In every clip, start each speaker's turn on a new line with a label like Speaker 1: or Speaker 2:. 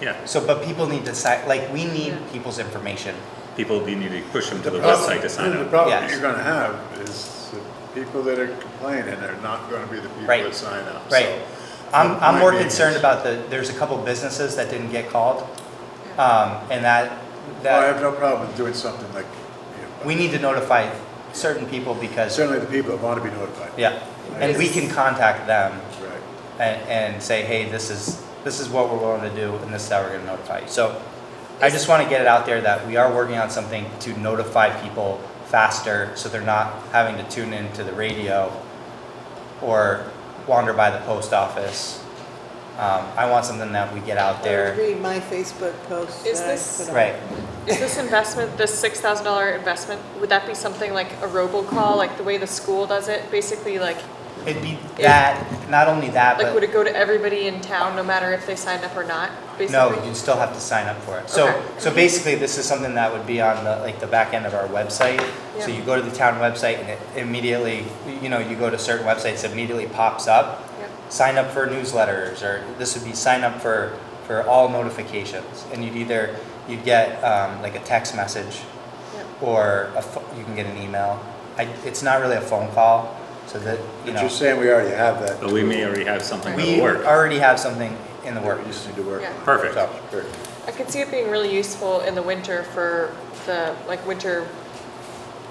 Speaker 1: Yeah,
Speaker 2: So, but people need to sign, like, we need
Speaker 3: Yeah.
Speaker 2: people's information.
Speaker 1: people do need to push them to the
Speaker 4: problem-
Speaker 1: website to sign
Speaker 4: The
Speaker 1: up.
Speaker 4: problem
Speaker 2: Yes.
Speaker 4: you're gonna have is the people that are complaining are not gonna be the people
Speaker 2: Right.
Speaker 4: that sign up.
Speaker 2: Right.
Speaker 4: So
Speaker 2: I'm,
Speaker 4: my
Speaker 2: I'm more
Speaker 4: thing is-
Speaker 2: concerned about the, there's a couple businesses that didn't get called. Um, and that,
Speaker 4: Well, oh, I have
Speaker 2: that,
Speaker 4: no problem doing something like, you know,
Speaker 2: we need to notify certain people because,
Speaker 4: certainly the people that wanna be notified.
Speaker 2: yeah. And we can contact them
Speaker 4: Right.
Speaker 2: and, and say, hey, this is, this is what we're willing to do and this is how we're gonna notify you. So I just wanna get it out there that we are working on something to notify people faster so they're not having to tune into the radio or wander by the post office. Um, I want something that we get out there.
Speaker 5: Read my Facebook post.
Speaker 3: Is
Speaker 5: that I
Speaker 3: this-
Speaker 5: put up.
Speaker 2: Right,
Speaker 3: Is this investment, this six thousand dollar investment, would that be something like a robocall, like the way the school does it? Basically, like,
Speaker 2: it'd be that, not only that,
Speaker 3: like would
Speaker 2: but
Speaker 3: it go to everybody in town, no matter if they signed up or not?
Speaker 2: no,
Speaker 3: Basically,
Speaker 2: you'd still have to sign up for it. So,
Speaker 3: Okay.
Speaker 2: so basically, this is something that would be on the, like, the back end of our website. So
Speaker 3: Yeah.
Speaker 2: you go to the town website and it immediately, you know, you go to certain websites, it immediately pops up.
Speaker 3: Yeah.
Speaker 2: Sign up for newsletters, or this would be sign up for, for all notifications. And you'd either, you'd get, um, like a text message
Speaker 3: Yeah.
Speaker 2: or a, pho- you can get an email. I, it's not really a phone call, so that, you
Speaker 4: But
Speaker 2: know.
Speaker 4: you're saying we already have that.
Speaker 1: But we may already have something
Speaker 2: We
Speaker 1: that'll work.
Speaker 2: already have something in the
Speaker 4: We
Speaker 2: works.
Speaker 4: just need to work
Speaker 3: Yeah.
Speaker 4: on it.
Speaker 1: Perfect.
Speaker 2: So,
Speaker 4: Sure.
Speaker 3: I could see it being really useful in the winter for the, like, winter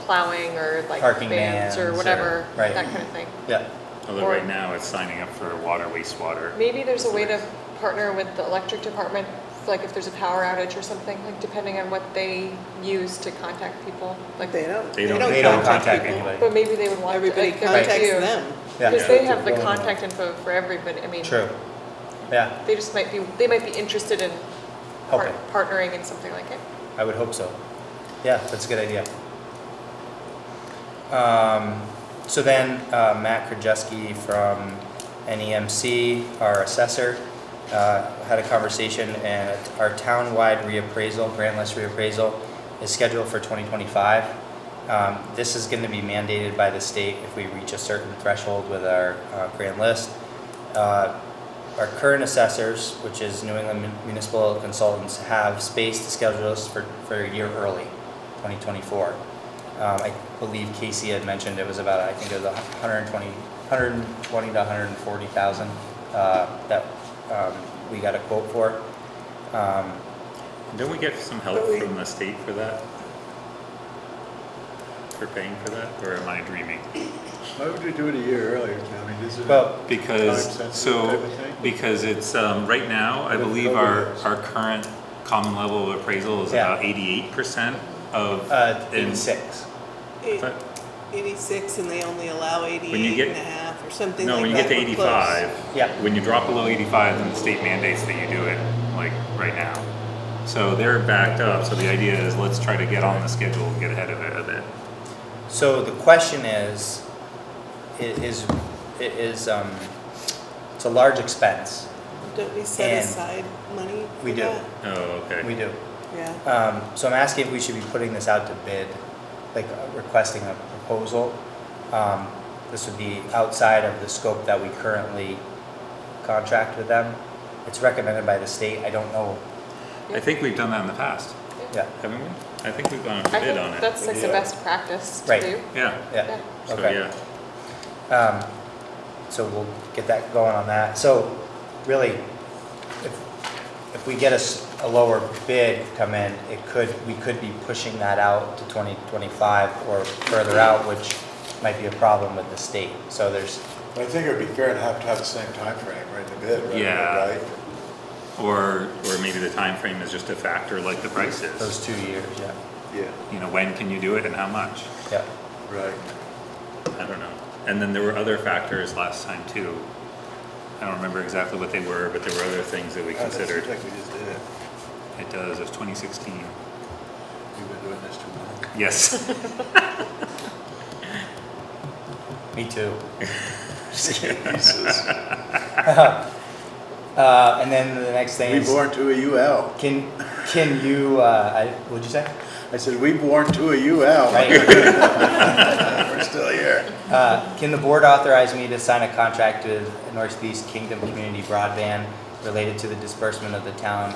Speaker 3: plowing or like
Speaker 2: Parking
Speaker 3: bands
Speaker 2: bans or-
Speaker 3: or whatever,
Speaker 2: right.
Speaker 3: that kind of thing.
Speaker 2: yeah,
Speaker 1: Although right now it's signing up for water, wastewater.
Speaker 3: Maybe there's a way to partner with the electric department, like if there's a power outage or something, like depending on what they use to contact people, like.
Speaker 5: They don't.
Speaker 1: They don't-
Speaker 2: they don't contact
Speaker 1: people.
Speaker 2: anybody.
Speaker 3: But maybe they would want.
Speaker 5: Everybody
Speaker 3: like, there might
Speaker 5: contacts
Speaker 3: be a-
Speaker 5: them.
Speaker 2: Yeah,
Speaker 3: Because they have the contact info for everybody, I mean.
Speaker 2: true. Yeah,
Speaker 3: They just might be, they might be interested in par-
Speaker 2: Helping.
Speaker 3: partnering in something like it.
Speaker 2: I would hope so. Yeah, that's a good idea. Um, so then, uh, Matt Krajewski from NEMC, our assessor, uh, had a conversation and our townwide reappraisal, grantless reappraisal is scheduled for twenty twenty-five. Um, this is gonna be mandated by the state if we reach a certain threshold with our, uh, grant list. Uh, Our current assessors, which is New England Municipal Consultants, have space to schedule us for, for a year early, 2024. Um, I believe Casey had mentioned it was about, I think it was 120, 120 to 140,000 uh, that um, we got a quote for. Um,
Speaker 1: Don't we get some help
Speaker 5: But we-
Speaker 1: from the state for that? For paying for that, or am I dreaming?
Speaker 4: Why would we do it a year earlier? I mean, is it?
Speaker 2: Well,
Speaker 1: Because,
Speaker 4: Time sensitive
Speaker 1: so,
Speaker 4: type of thing?
Speaker 1: because it's, um, right now, I
Speaker 4: With
Speaker 1: believe our,
Speaker 4: programs.
Speaker 1: our current common level appraisal is
Speaker 2: Yeah.
Speaker 1: about eighty-eight percent of.
Speaker 2: uh,
Speaker 1: in-
Speaker 2: 86.
Speaker 1: But-
Speaker 5: Eighty-six and they only allow eighty-eight
Speaker 1: get-
Speaker 5: and a half or something
Speaker 1: No,
Speaker 5: like that.
Speaker 1: when you get to
Speaker 5: We're close.
Speaker 1: eighty-five.
Speaker 2: Yeah.
Speaker 1: When you drop below eighty-five, then the state mandates that you do it, like, right now. So they're backed up, so the idea is let's try to get on the schedule and get ahead of it a bit.
Speaker 2: So the question is, it is, it is, um, it's a large expense.
Speaker 5: Don't we set
Speaker 2: And-
Speaker 5: aside money for
Speaker 2: We do.
Speaker 5: that?
Speaker 1: Oh, okay.
Speaker 2: We do.
Speaker 5: Yeah.
Speaker 2: Um, so I'm asking if we should be putting this out to bid, like uh, requesting a proposal. Um, this would be outside of the scope that we currently contract with them. It's recommended by the state. I don't know.
Speaker 1: I think we've done that in the past,
Speaker 2: Yeah,
Speaker 1: haven't we? I think we've gone out to
Speaker 3: I
Speaker 1: bid
Speaker 3: think
Speaker 1: on it.
Speaker 3: that's like the
Speaker 4: Yeah.
Speaker 3: best practice to
Speaker 2: Right.
Speaker 3: do.
Speaker 1: Yeah,
Speaker 2: yeah.
Speaker 1: so,
Speaker 2: Okay.
Speaker 1: yeah.
Speaker 2: Um, so we'll get that going on that. So really, if, if we get a, s- a lower bid come in, it could, we could be pushing that out to twenty twenty-five or further out, which might be a problem with the state. So there's,
Speaker 4: I think it would be fair to have to have the same timeframe right in the bid, right?
Speaker 1: Yeah.
Speaker 4: Right?
Speaker 1: Or, or maybe the time frame is just a factor like the price is.
Speaker 2: those two years, yeah,
Speaker 4: Yeah,
Speaker 1: You know, when can you do it and how much?
Speaker 2: yeah.
Speaker 4: right.
Speaker 1: I don't know. And then there were other factors last time too. I don't remember exactly what they were, but there were other things that we
Speaker 4: God, that seems
Speaker 1: considered.
Speaker 4: Like we just did it.
Speaker 1: It does, it's 2016.
Speaker 4: We've been doing this too long.
Speaker 1: Yes.
Speaker 2: Me too.
Speaker 4: Jesus.
Speaker 2: Uh, and then the next thing
Speaker 4: We
Speaker 2: is,
Speaker 4: born to a UL.
Speaker 2: can, can you, uh, I, what'd you say?
Speaker 4: I said, we born to a UL.
Speaker 2: Right,
Speaker 4: We're still here.
Speaker 2: uh, can the board authorize me to sign a contract with Northeast Kingdom Community Broadband related to the disbursement of the town